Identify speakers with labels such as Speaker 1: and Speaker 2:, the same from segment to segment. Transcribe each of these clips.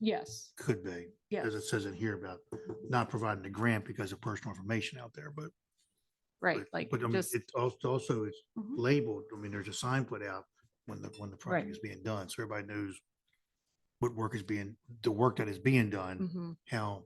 Speaker 1: Yes,
Speaker 2: could be,
Speaker 1: yes,
Speaker 2: because it says it here about not providing the grant because of personal information out there, but.
Speaker 1: right,
Speaker 2: but-
Speaker 1: like
Speaker 2: But I mean,
Speaker 1: just,
Speaker 2: it's als- also, it's
Speaker 1: Mhm.
Speaker 2: labeled, I mean, there's a sign put out when the, when the project
Speaker 1: Right.
Speaker 2: is being done, so everybody knows what work is being, the work that is being done,
Speaker 1: Mhm.
Speaker 2: how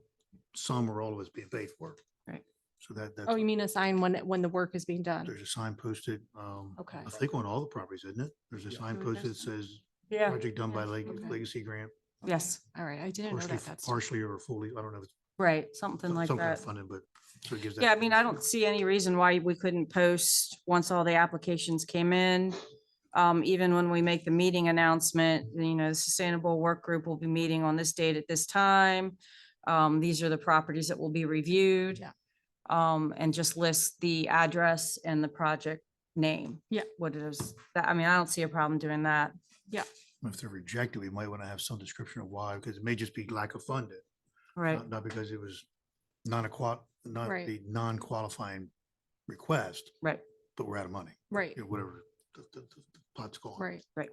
Speaker 2: some or all of it's being paid for.
Speaker 1: Right.
Speaker 2: So that, that's,
Speaker 1: oh, you mean assign when, it- when the work is being done?
Speaker 2: there's a sign posted, um,
Speaker 1: Okay.
Speaker 2: I think on all the properties, isn't it? There's a sign posted that says
Speaker 3: Yeah.
Speaker 2: project done by Leg-
Speaker 1: Okay.
Speaker 2: Legacy Grant,
Speaker 1: Yes, all right, I didn't know
Speaker 2: partially,
Speaker 1: that, that's,
Speaker 2: partially or fully, I don't know, if it's
Speaker 3: Right, something
Speaker 2: some
Speaker 3: like
Speaker 2: some kind
Speaker 3: that.
Speaker 2: of funding, but. so it gives that
Speaker 3: Yeah, I mean, I
Speaker 2: information.
Speaker 3: don't see any reason why we couldn't post once all the applications came in. Um, even when we make the meeting announcement, you know, the Sustainable Work Group will be meeting on this date at this time. Um, these are the properties that will be reviewed.
Speaker 1: Yeah.
Speaker 3: Um, and just list the address and the project name.
Speaker 1: Yeah.
Speaker 3: What it is. That, I mean, I don't see a problem doing that.
Speaker 2: If they're rejected, we might want to have some description of why, because it may just be lack of funding.
Speaker 3: Right.
Speaker 2: Not not because it was not a qual, not
Speaker 1: Right.
Speaker 2: the non-qualifying request.
Speaker 3: Right.
Speaker 2: But we're out of money,
Speaker 1: right,
Speaker 2: you know, whatever the, the, the the pot's gone.
Speaker 1: right,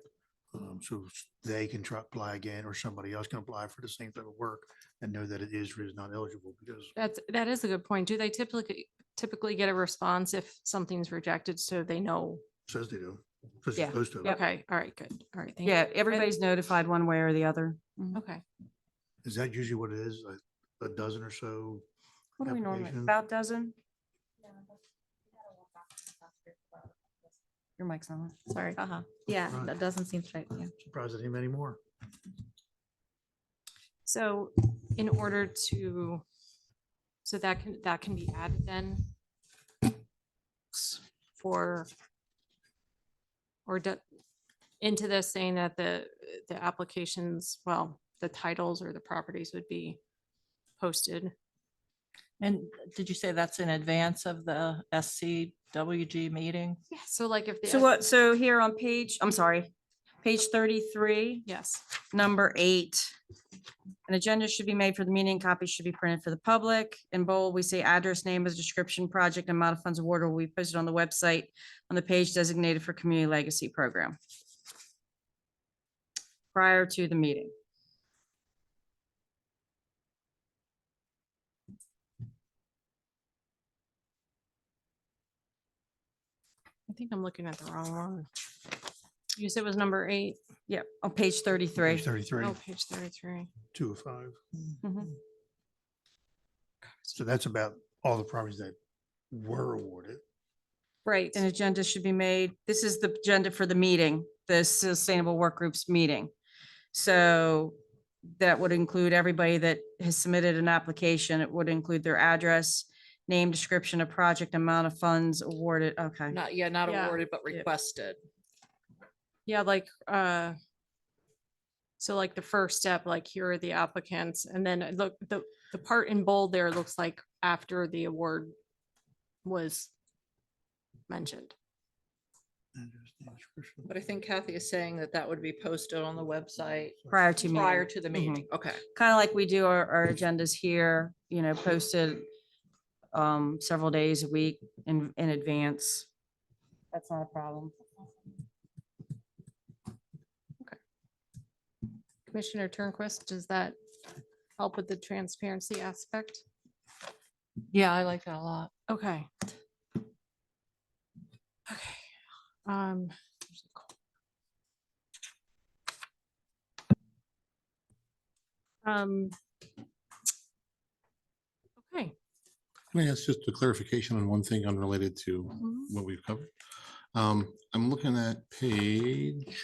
Speaker 2: Um, so s- they can try, apply again, or somebody else can apply for the same type of work and know that it is or is not eligible because
Speaker 1: that's, that is a good point. Do they typically, typically get a response if something's rejected so they know?
Speaker 2: it says they do. says it's
Speaker 3: Yeah.
Speaker 2: supposed to.
Speaker 1: Okay, all right, good, all right, thank you.
Speaker 3: Yeah, everybody's notified one way or the other.
Speaker 1: Okay,
Speaker 2: Is that usually what it is? Like a dozen or so?
Speaker 3: What do we normally,
Speaker 2: applications?
Speaker 3: about dozen? Your mic's on.
Speaker 4: Sorry.
Speaker 3: Uh-huh.
Speaker 4: Yeah,
Speaker 2: Right.
Speaker 4: that doesn't seem right. Yeah.
Speaker 2: Surprised at him anymore.
Speaker 1: so in order to, so that can, that can be added then? s- For, or do- into this saying that the, the applications, well, the titles or the properties would be posted?
Speaker 5: And did you say that's in advance of the SCWG meeting?
Speaker 1: Yeah, so like if. the
Speaker 3: So
Speaker 1: S-
Speaker 3: what, so here on page, I'm sorry, page thirty-three,
Speaker 1: Yes,
Speaker 3: number eight. An agenda should be made for the meeting, copies should be printed for the public. In bold, we say address, name, as description, project, and amount of funds awarded will be posted on the website on the page designated for Community Legacy Program. Prior to the meeting.
Speaker 1: I think I'm looking at the wrong one. You said it was number eight,
Speaker 3: Yeah, on page
Speaker 2: Page
Speaker 3: thirty-three.
Speaker 2: Thirty-three,
Speaker 1: oh, page thirty-three.
Speaker 2: two of five.
Speaker 1: Mhm.
Speaker 2: So that's about all the properties that were awarded.
Speaker 1: Right,
Speaker 3: an agenda should be made. This is the agenda for the meeting, the Sustainable Work Group's meeting. So that would include everybody that has submitted an application. It would include their address, name, description of project, amount of funds awarded. Okay.
Speaker 6: Not, yeah, not
Speaker 1: Yeah.
Speaker 6: awarded, but requested.
Speaker 1: yeah, like, uh, so like the first step, like here are the applicants, and then uh, look, the, the part in bold there looks like after the award was mentioned.
Speaker 6: But I think Kathy is saying that that would be posted on the website
Speaker 3: Prior to meeting.
Speaker 6: prior to Mm-hmm. the
Speaker 3: Mhm.
Speaker 6: meeting. Okay.
Speaker 3: Kind of like we do our, our agendas here, you know, posted um, several days a week in, in advance. That's not a problem.
Speaker 1: Commissioner Turnquist, does that help with the transparency aspect?
Speaker 6: Yeah, I like that a lot.
Speaker 1: Okay. Okay. Um. there's a call. Um. Okay.
Speaker 7: Can I ask just a clarification on one thing unrelated to
Speaker 1: Mhm.
Speaker 7: what we've covered? Um, I'm looking at page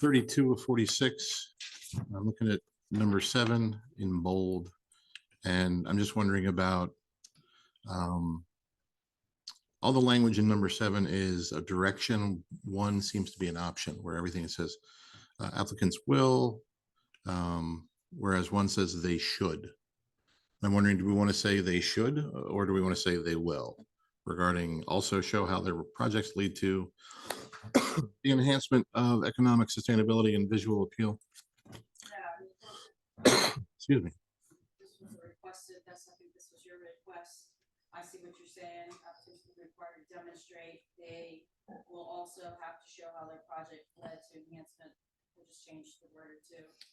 Speaker 7: thirty-two of forty-six. I'm looking at number seven in bold. And I'm just wondering about um, all the language in number seven is a direction. One seems to be an option where everything says uh, applicants will, um, whereas one says they should. I'm wondering, do we want to say they should, or do we want to say they will regarding also show how their projects lead to the enhancement of economic sustainability and visual appeal? Excuse me.
Speaker 8: this was a requested, that's, I think this was your request. I see what you're saying, applicants will be required to demonstrate, they will also have to show how their project led to enhancement. We'll just change the word to.